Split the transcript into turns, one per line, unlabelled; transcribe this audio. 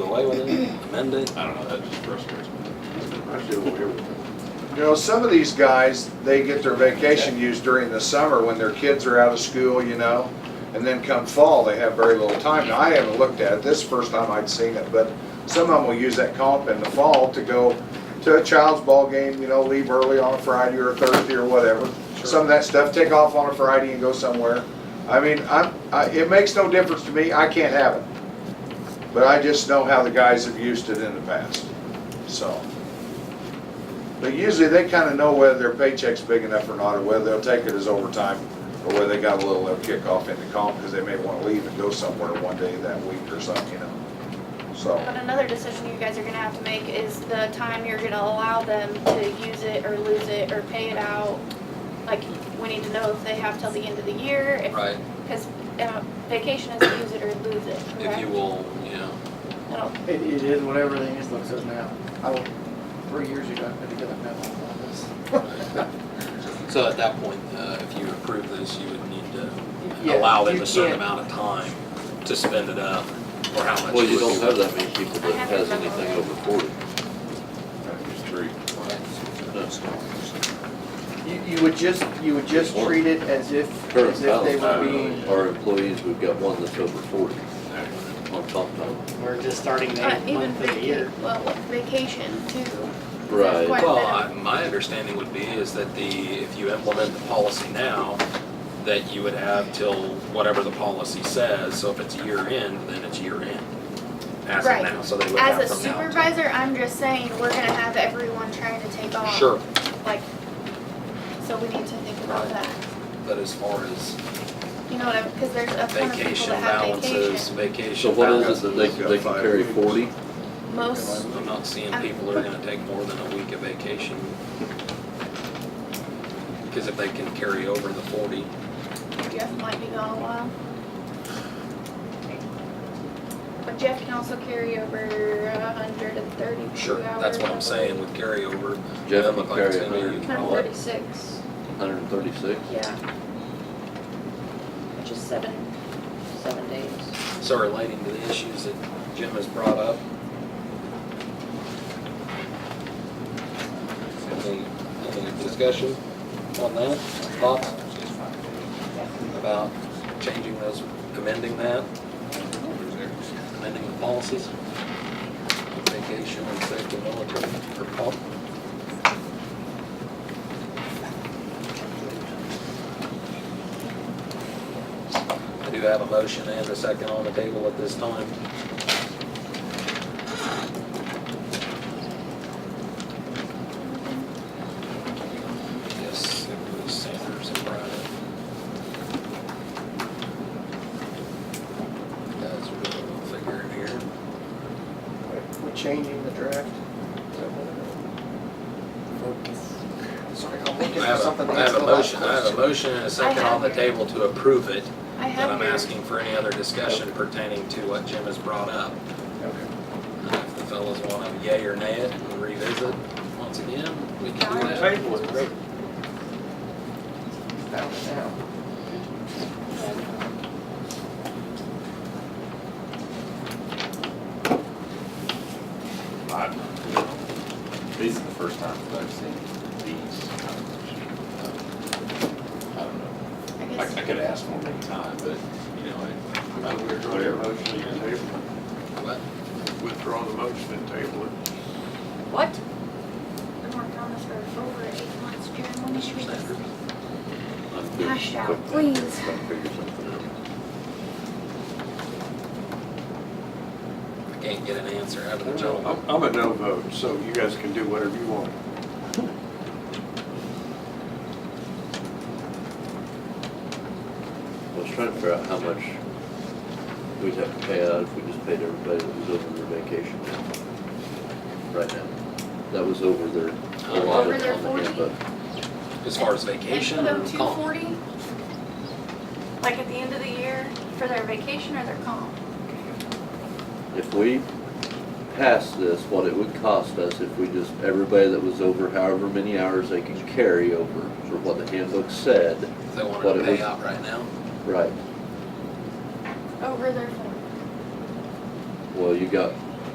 away with it, amend it?
I don't know, that just frustrates me.
I do everything. You know, some of these guys, they get their vacation used during the summer when their kids are out of school, you know? And then come fall, they have very little time. Now, I haven't looked at it, this is the first time I'd seen it, but some of them will use that comp in the fall to go to a child's ball game, you know, leave early on a Friday or a Thursday or whatever. Some of that stuff, take off on a Friday and go somewhere. I mean, I'm, I, it makes no difference to me, I can't have it. But I just know how the guys have used it in the past, so. But usually they kind of know whether their paycheck's big enough or not, or whether they'll take it as overtime, or whether they got a little uh, kickoff in the comp, because they may want to leave and go somewhere one day that week or something, you know?
But
So,
another decision you guys are gonna have to make is the time you're gonna allow them to use it or lose it or pay it out. Like, we need to know if they have till the end of the year, if,
Right,
cause uh, vacation is use it or lose it,
if you
correct?
will, you know,
I don't-
It, it is what everything is looks at now. I, was- three years ago, I put together a memo on this.
so at that point, uh, if you approve this, you would need to
Yeah,
allow them
you
a certain
can't-
amount of time to spend it up, or how much.
Well, you
would
don't
be-
have that many people that has anything over forty.
that's three.
You, you would just, you would just
Or-
treat it as if,
Current
as if they were
balance,
being,
our employees, we've got one that's over forty on comp time.
We're just starting the
Uh,
eighth
even
month of the year.
vacation, well, vacation too.
Right.
Quite a
Well,
bit of-
I- my understanding would be is that the, if you implement the policy now, that you would have till whatever the policy says, so if it's year end, then it's year end. As of
Right.
now, so they would have
As a
from now. till-
supervisor, I'm just saying, we're gonna have everyone trying to take off.
Sure,
Like, so we need to think about
Right.
that.
but as far as
You know what I'm, cause there's a ton of people
vacation
that have
balances,
vacation.
So
vacation
what
balances.
is it that they can, they can carry forty?
Most,
I'm not seeing people that are gonna take more than a week of vacation. Because if they can carry over the forty,
Jeff might be gone a while. But Jeff can also carry over a hundred and thirty-two hours.
sure, that's what I'm saying with carryover.
Jeff
Look like
can carry
it's
a
gonna be-
hundred and
Hundred
what,
thirty-six,
hundred and thirty-six?
yeah. Which is seven, seven days.
So relating to the issues that Jim has brought up. Any, any discussion on that, thoughts? About changing those, amending that? Amending the policies? Vacation and safety military or pol- I do have a motion and a second on the table at this time. Yes, it was Sanders and Bryant. Guys, we're gonna figure it here.
we're changing the draft. Sorry, I'm looking
I
for
have
something.
a, I have
that's
a
the last
motion, I have a
question.
motion and a second on the table to approve it.
I
But
have
I'm
your-
asking for any other discussion pertaining to what Jim has brought up. Uh, If the fellows want to yay or nay it and revisit once again, we can do that.
Table it, right?
Down to now.
I- These are the first time that I've seen these. I don't know.
I
I,
guess,
I could ask one at a time, but, you know, I, I would, whatever.
But
Withdraw the motion and table it.
What?
I'm working on this for over eight months, Jim, when should we just
Sanders,
I'm good.
Hash out,
Quick,
please.
I'll figure something out.
I can't get an answer out of the gentleman.
I'm I'm a no vote, so you guys can do whatever you want.
I was trying to figure out how much we'd have to pay out if we just paid everybody that was over their vacation now. Right now. That was over their
Over
allotted
their
on the
40?
handbook.
As far as
and
vacation
put
or
them two
comp?
forty, like at the end of the year, for their vacation or their comp?
If we passed this, what it would cost us if we just, everybody that was over however many hours they can carry over for what the handbook said,
If they wanted
What
to
it
pay
was-
out right now,
right,
Over their forty.
well, you got